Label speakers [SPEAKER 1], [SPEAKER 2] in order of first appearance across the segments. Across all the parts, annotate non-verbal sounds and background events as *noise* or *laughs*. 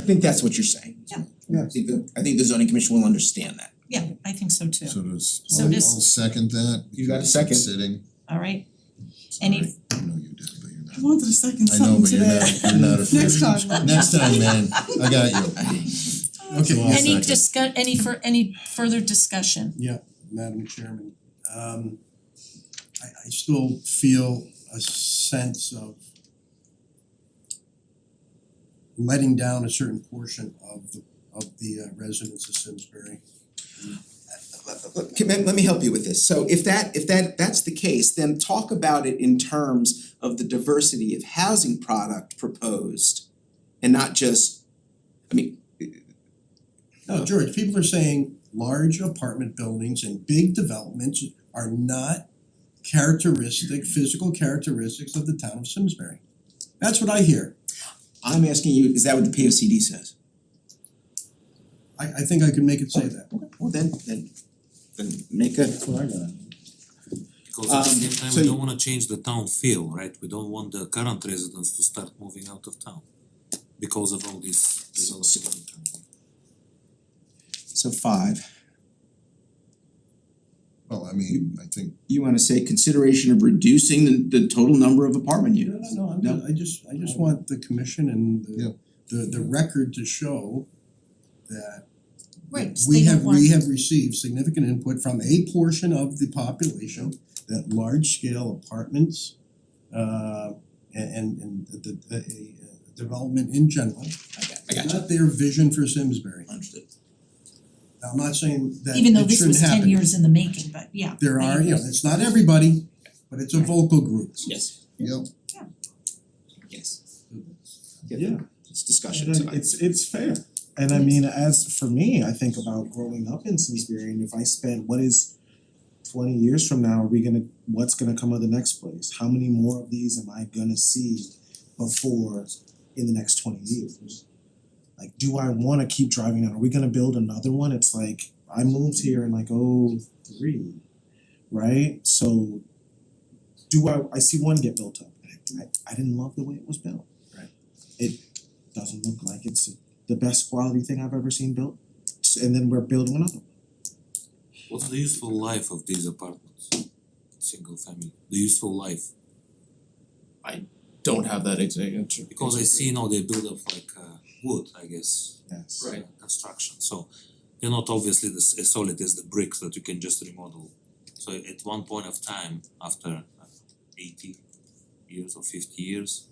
[SPEAKER 1] think that's what you're saying.
[SPEAKER 2] Yeah.
[SPEAKER 1] I think the I think the zoning commission will understand that.
[SPEAKER 2] Yeah, I think so too.
[SPEAKER 3] So does,
[SPEAKER 2] So
[SPEAKER 3] I'll I'll
[SPEAKER 2] does-
[SPEAKER 3] second that.
[SPEAKER 1] You got a
[SPEAKER 3] because I'm
[SPEAKER 1] second.
[SPEAKER 3] Sitting,
[SPEAKER 2] All right,
[SPEAKER 3] sorry,
[SPEAKER 2] Any-
[SPEAKER 3] I know you did, but you're
[SPEAKER 4] I
[SPEAKER 3] not.
[SPEAKER 4] wanted a second
[SPEAKER 3] I know,
[SPEAKER 4] something
[SPEAKER 3] but you're
[SPEAKER 4] today.
[SPEAKER 3] not, you're not a
[SPEAKER 4] Next
[SPEAKER 3] fan.
[SPEAKER 4] time.
[SPEAKER 3] Next time, man, I got you. Okay, I'll
[SPEAKER 2] any
[SPEAKER 3] second.
[SPEAKER 2] discuss, any for, any further discussion?
[SPEAKER 5] Yeah, Madam Chairman, um I I still feel a sense of letting down a certain portion of the of the uh, residents of Simsbury.
[SPEAKER 1] Let- Let let me help you with this. So if that if that that's the case, then talk about it in terms of the diversity of housing product proposed and not just, I mean,
[SPEAKER 5] No, George, people are saying large apartment buildings and big developments are not characteristic, physical characteristics of the town of Simsbury. That's what I hear.
[SPEAKER 1] I'm asking you, is that what the P O C D says?
[SPEAKER 5] I I think I could make it say that.
[SPEAKER 1] Well, then then then make a
[SPEAKER 5] That's what I got.
[SPEAKER 6] Because at the
[SPEAKER 1] Um,
[SPEAKER 6] same time,
[SPEAKER 1] so
[SPEAKER 6] we
[SPEAKER 1] you-
[SPEAKER 6] don't wanna change the town feel, right? We don't want the current residents to start moving out of town because of all this development.
[SPEAKER 1] so five.
[SPEAKER 3] Well, I mean, I think
[SPEAKER 1] You wanna say consideration of reducing the the total number of apartment
[SPEAKER 5] No,
[SPEAKER 1] units?
[SPEAKER 5] no, no, I'm
[SPEAKER 1] No?
[SPEAKER 5] just, I just, I just want the commission and
[SPEAKER 3] Yeah.
[SPEAKER 5] the the the record to show that
[SPEAKER 2] Right,
[SPEAKER 5] we
[SPEAKER 2] they don't
[SPEAKER 5] have,
[SPEAKER 2] want-
[SPEAKER 5] we have received significant input from a portion of the population that large scale apartments uh and and and the the the uh, development in general,
[SPEAKER 1] I got
[SPEAKER 5] is not their vision for Simsbury.
[SPEAKER 1] Understood.
[SPEAKER 5] Now, I'm not saying that
[SPEAKER 2] Even though
[SPEAKER 5] it
[SPEAKER 2] this
[SPEAKER 5] shouldn't
[SPEAKER 2] was ten
[SPEAKER 5] happen,
[SPEAKER 2] years in the making, but yeah.
[SPEAKER 5] there
[SPEAKER 2] I
[SPEAKER 5] are, you know,
[SPEAKER 2] agree.
[SPEAKER 5] it's not everybody, but it's a vocal group.
[SPEAKER 1] Yes,
[SPEAKER 3] Yep,
[SPEAKER 1] yes.
[SPEAKER 7] Yeah.
[SPEAKER 1] It's discussion
[SPEAKER 7] And
[SPEAKER 1] tonight.
[SPEAKER 7] it's it's fair. And I mean, as for me, I think about growing up in Simsbury and if I spend what is twenty years from now, are we gonna, what's gonna come of the next place? How many more of these am I gonna see before in the next twenty years? Like, do I wanna keep driving down? Are we gonna build another one? It's like, I moved here in like oh three, right? So do I, I see one get built up. I I didn't love the way it was built doesn't look like it's the best quality thing I've ever seen built. S- And then we're building another one.
[SPEAKER 6] What's the useful life of these apartments? Single family, the useful life,
[SPEAKER 8] don't have that exact.
[SPEAKER 6] because I see now they build up like uh wood, I guess,
[SPEAKER 7] Yes.
[SPEAKER 6] uh, construction, so they're not obviously the s- as solid as the bricks that you can just remodel. So at one point of time, after uh, eighty years or fifty years,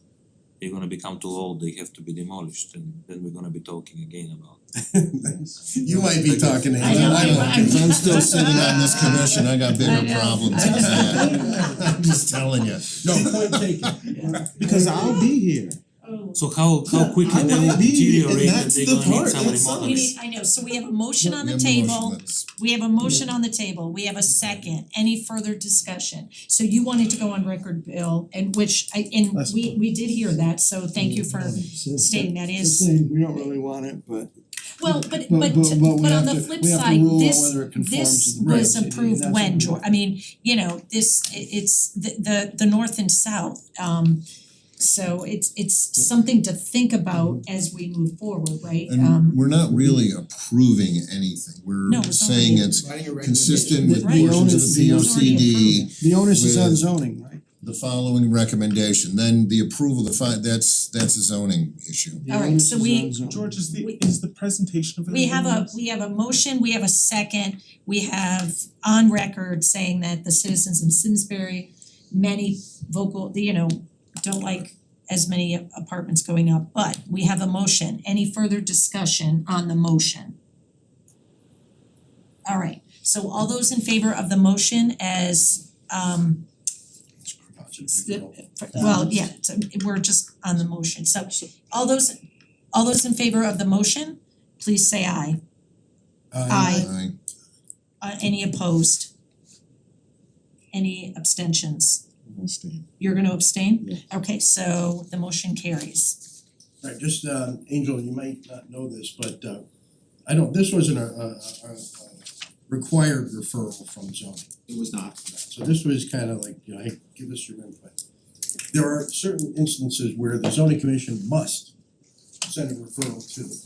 [SPEAKER 6] they're gonna become too old, they have to be demolished and then we're gonna be talking again about
[SPEAKER 5] *laughs*
[SPEAKER 1] *laughs*
[SPEAKER 5] You might be talking to him,
[SPEAKER 2] I know,
[SPEAKER 5] I
[SPEAKER 2] I-
[SPEAKER 5] don't
[SPEAKER 2] I-
[SPEAKER 5] think
[SPEAKER 3] if I'm still sitting on this commission, I got
[SPEAKER 2] I
[SPEAKER 3] bigger
[SPEAKER 2] know,
[SPEAKER 3] problems
[SPEAKER 2] I
[SPEAKER 3] than
[SPEAKER 2] know.
[SPEAKER 3] that. I'm just telling you. No,
[SPEAKER 5] Point taken.
[SPEAKER 7] Because I'll be here.
[SPEAKER 6] So how how quickly
[SPEAKER 7] I
[SPEAKER 6] they will
[SPEAKER 7] will be,
[SPEAKER 6] deteriorate
[SPEAKER 7] and
[SPEAKER 6] and
[SPEAKER 7] that's
[SPEAKER 6] they're
[SPEAKER 7] the
[SPEAKER 6] gonna need
[SPEAKER 7] part,
[SPEAKER 6] some
[SPEAKER 7] that's something.
[SPEAKER 2] We
[SPEAKER 6] remodeling.
[SPEAKER 2] need, I know, so we have a motion on the
[SPEAKER 3] we have a motion,
[SPEAKER 2] table,
[SPEAKER 3] let's-
[SPEAKER 2] we have a motion on the table, we have a second, any further discussion? So you wanted to go on record, Bill, and which I and
[SPEAKER 7] That's
[SPEAKER 2] we we did hear that, so thank you for stating that is,
[SPEAKER 4] we don't really want it, but
[SPEAKER 2] well, but
[SPEAKER 4] But-
[SPEAKER 2] but
[SPEAKER 4] but-
[SPEAKER 2] to-
[SPEAKER 4] but we
[SPEAKER 2] but
[SPEAKER 4] have
[SPEAKER 2] on the
[SPEAKER 4] to-
[SPEAKER 2] flip
[SPEAKER 4] we have to
[SPEAKER 2] side,
[SPEAKER 4] rule on
[SPEAKER 2] this
[SPEAKER 4] whether it conforms
[SPEAKER 2] this
[SPEAKER 4] with the
[SPEAKER 2] was
[SPEAKER 4] reg.
[SPEAKER 2] approved
[SPEAKER 4] That's
[SPEAKER 2] when,
[SPEAKER 4] what
[SPEAKER 2] George, I mean, you know, this i- it's the the the north and south, um so it's it's something to think about as we move forward, right? Um
[SPEAKER 3] And we're not really approving anything,
[SPEAKER 2] No,
[SPEAKER 3] we're
[SPEAKER 2] it's not
[SPEAKER 3] saying
[SPEAKER 2] really-
[SPEAKER 3] it's
[SPEAKER 1] Writing a
[SPEAKER 3] consistent with
[SPEAKER 2] Right.
[SPEAKER 3] portions of the P O
[SPEAKER 2] It's already
[SPEAKER 3] C D,
[SPEAKER 2] approved.
[SPEAKER 5] The onus
[SPEAKER 3] is on
[SPEAKER 5] zoning, right?
[SPEAKER 3] the following recommendation, then the approval, the fi- that's that's a zoning issue.
[SPEAKER 2] All right, so we-
[SPEAKER 7] George, is the
[SPEAKER 2] We-
[SPEAKER 7] is the presentation of it?
[SPEAKER 2] We have a, we have a motion, we have a second, we have on record saying that the citizens in Simsbury, many vocal, you know, don't like as many apartments going up, but we have a motion. Any further discussion on the motion? All right, so all those in favor of the motion as um well, yeah, so we're just on the motion, so all those, all those in favor of the motion, please say aye. Aye.
[SPEAKER 3] Aye.
[SPEAKER 2] Uh any opposed? Any abstentions?
[SPEAKER 7] Understand.
[SPEAKER 2] You're gonna abstain?
[SPEAKER 7] Yes.
[SPEAKER 2] Okay, so the motion carries.
[SPEAKER 5] Right, just uh Angel, you might not know this, but uh I don't, this wasn't a a a a required referral from zoning.
[SPEAKER 1] It was not.
[SPEAKER 5] So this was kind of like, you know, hey, give us your input. There are certain instances where the zoning commission must send a referral to the